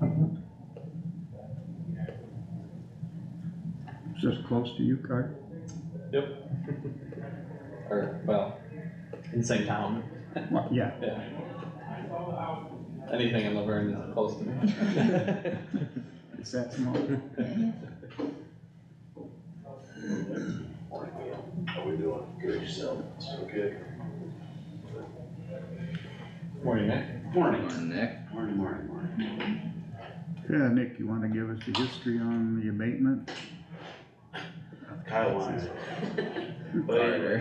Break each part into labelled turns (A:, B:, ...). A: Mm-hmm. It's just close to you, Carter?
B: or, well, in the same town,
A: Well, yeah,
B: yeah. Anything in Laverne is close to me.
A: it's that small.
C: How we doing? Good yourself? So good.
B: Morning, Nick.
D: Morning,
E: Morning, Nick.
D: morning, morning, morning.
A: Yeah, Nick, you wanna give us the history on the abatement?
D: Kyle wanted.
E: Carter.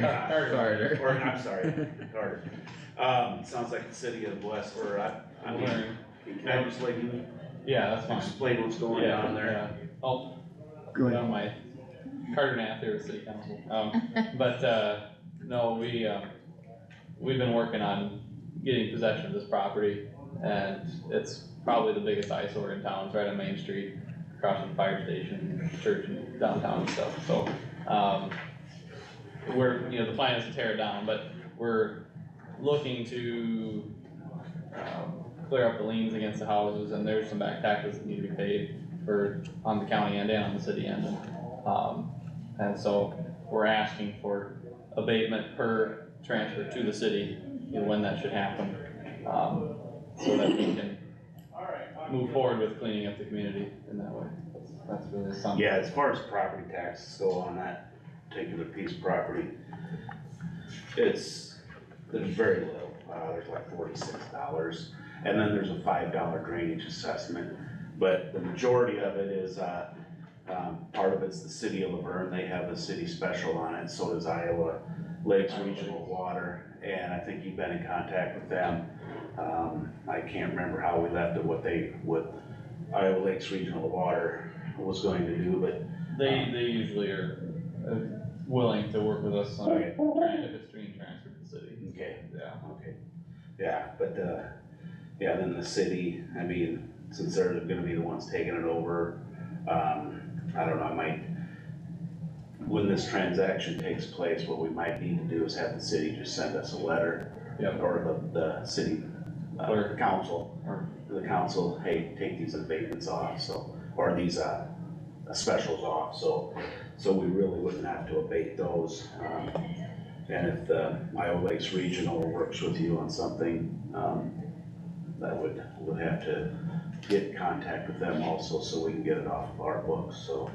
E: Carter.
D: Or, I'm sorry, Carter. Um, sounds like the city of West, or I, I mean,
B: Morning.
D: can I just let you
B: Yeah, that's fine.
D: explain what's going
B: Yeah,
D: on there?
B: yeah. Oh,
A: Go ahead.
B: no, my, Carter Nath here with City Council, um, but, uh, no, we, um, we've been working on getting possession of this property, and it's probably the biggest eyesore in town, it's right on Main Street, across from the fire station, church and downtown and stuff, so, um, we're, you know, the plan is to tear it down, but we're looking to, um, clear up the liens against the houses, and there's some back taxes that need to be paid for, on the county end and on the city end. Um, and so we're asking for abatement per transfer to the city, you know, when that should happen. Um, so that we can move forward with cleaning up the community in that way. That's- That's really something.
D: Yeah, as far as property taxes go on that particular piece of property, it's, there's very little, uh, there's like forty-six dollars. And then there's a five dollar drainage assessment, but the majority of it is, uh, um, part of it's the city of Laverne, they have a city special on it, so does Iowa Lakes Regional Water. And I think you've been in contact with them, um, I can't remember how we left it, what they, what Iowa Lakes Regional Water was going to do, but
B: They, they usually are uh, willing to work with us on,
D: Okay.
B: tran- if it's being transferred to the city,
D: okay,
B: yeah.
D: okay. Yeah, but uh, yeah, then the city, I mean, since they're gonna be the ones taking it over, um, I don't know, I might. When this transaction takes place, what we might need to do is have the city just send us a letter.
B: Yep.
D: Or the, the city, uh,
B: Clerk.
D: council,
B: Or-
D: the council, hey, take these abatements off, so, or these, uh, specials off, so, so we really wouldn't have to abate those. Um, And if the Iowa Lakes Regional works with you on something, um, that would, would have to get in contact with them also, so we can get it off of our books, so.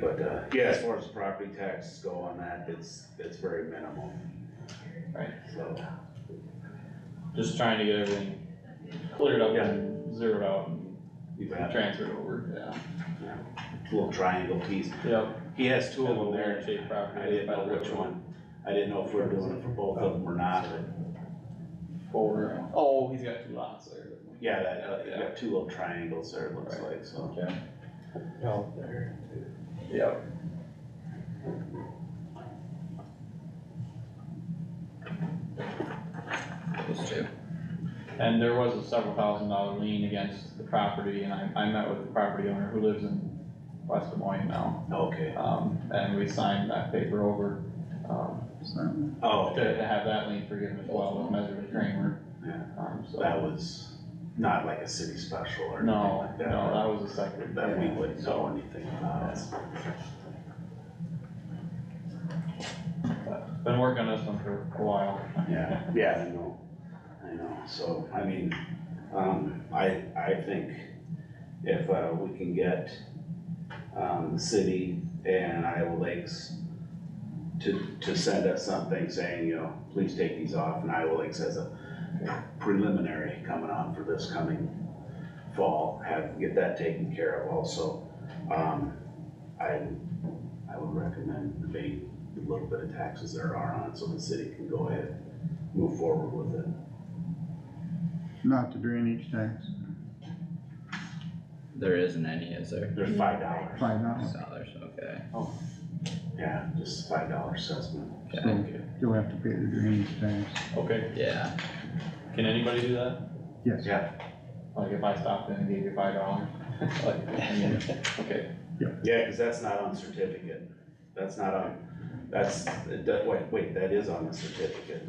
D: But, uh, yeah, as far as property taxes go on that, it's, it's very minimal.
B: Right.
D: So,
B: Just trying to get everything cleared up
D: Yeah.
B: and zeroed out and
D: you've got
B: transferred over,
D: little triangle piece,
B: yeah. Yep.
D: he has two of them there,
B: Weird shaped property.
D: I didn't know which one, I didn't know if we we're doing it for both of them or not, but
B: Four. Oh, he's got two lots there. doesn't he?
D: Yeah, that, uh, you
B: Yeah.
D: got two little triangles there, it looks like, so.
B: Okay.
C: Out there.
B: Yep.
E: Those two.
B: And there was a several thousand dollar lien against the property and I, I met with the property owner who lives in West Des Moines now.
D: Okay,
B: Um, and we signed that paper over, um,
A: So,
D: oh,
B: to to have that lien forgiven as well with Measure of Kramer.
D: Yeah.
B: Um, so.
D: that was not like a city special or anything
B: No,
D: like
B: no,
D: that.
B: that was a separate.
D: That we wouldn't know anything about.
B: Been working on this one for a while.
D: Yeah, yeah, I know, I know, so, I mean, um, I, I think if, uh, we can get, um, the city and Iowa Lakes to, to send us something saying, you know, please take these off, and Iowa Lakes has a preliminary coming on for this coming fall, have, get that taken care of also. Um, I, I would recommend abating the little bit of taxes there are on it, so the city can go ahead move forward with it.
A: Not the drainage tax,
E: There isn't any, is there?
D: There's five dollars,
A: five dollars,
E: Dollars, okay.
D: yeah, just five dollar assessment.
E: Okay,
A: so you'll have to pay the drainage tax.
B: Okay,
E: yeah,
B: can anybody do that?
A: Yes,
B: Like if I stopped in and gave you five dollars? Like, I mean, okay,
D: Yeah, cause that's not on certificate, that's not on, that's, it does- wait, wait, that is on the certificate.